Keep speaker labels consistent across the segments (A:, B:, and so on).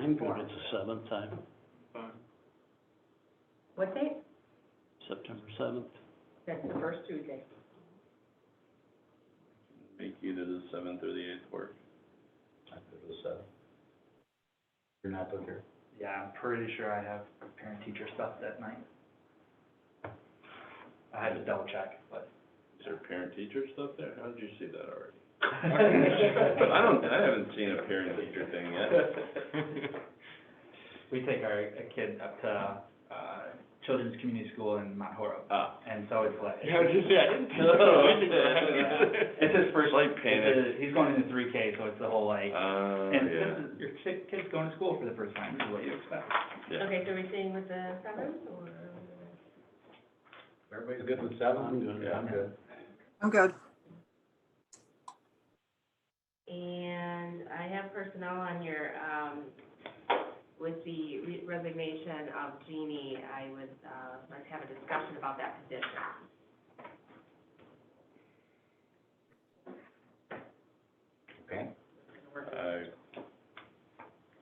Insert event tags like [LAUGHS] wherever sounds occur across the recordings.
A: You can put it the seventh time,
B: What date?
A: September seventh.
B: That's the first Tuesday.
C: Make either the seventh or the eighth work.
D: You're not doing here.
E: Yeah, I'm pretty sure I have parent-teacher stuff that night. I had to double check, but.
C: Is there parent-teacher stuff there? How did you see that already? But I
E: I
C: don't, I haven't seen a parent-teacher
D: [LAUGHS]
C: thing
E: [LAUGHS]
C: yet.
E: We take our a kid up to, uh, Children's Community School in Mount Horeb,
C: Ah.
E: and so it's like.
C: [LAUGHS] It's his first light painted.
E: It's a- He's going into three K, so it's the whole like,
C: Oh,
E: and
C: yeah,
E: this is, your kid, kid's going to school for the first time, this is what you expect.
C: yeah.
B: Okay, so we're staying with the seventh or?
D: Everybody's good with seven?
A: I'm good.
D: Yeah, I'm good.
F: I'm good.
B: And I have personnel on your, um, with the re- resignation of Jeannie, I would, uh, let's have a discussion about that position.
D: Okay.
C: I,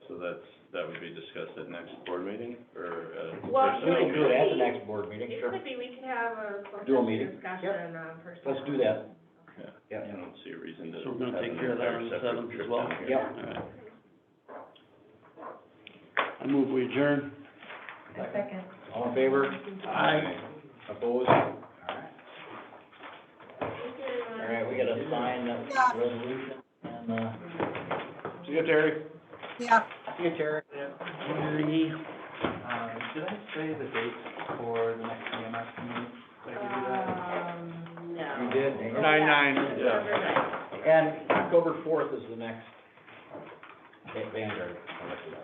C: so that's, that would be discussed at next board meeting, or, uh?
B: Well,
C: or
D: We
B: you-
C: something?
D: can do it at the next board meeting,
B: It
D: sure.
B: could be, we can have a closed
D: Do a
B: session
D: meeting.
B: discussion on personnel.
D: Let's do that.
C: Yeah,
D: Yeah.
C: I don't see a reason to.
A: So we're gonna
C: have
A: take
C: an
A: care of that
C: entire
A: on the
C: separate
A: 7th as
C: trip
A: well?
C: down here.
D: Yep.
A: All right. I move we adjourn.
B: Second.
D: All in favor? Opposed? All right. All right, we gotta sign that resolution and, uh. See you, Terry.
F: Yeah.
D: See you, Terry.
E: Um, did I say the dates for the next EMS meeting? Did I give you that?
B: Um, no.
D: You did, dang it.
B: nine.
D: And October fourth is the next Vanguard.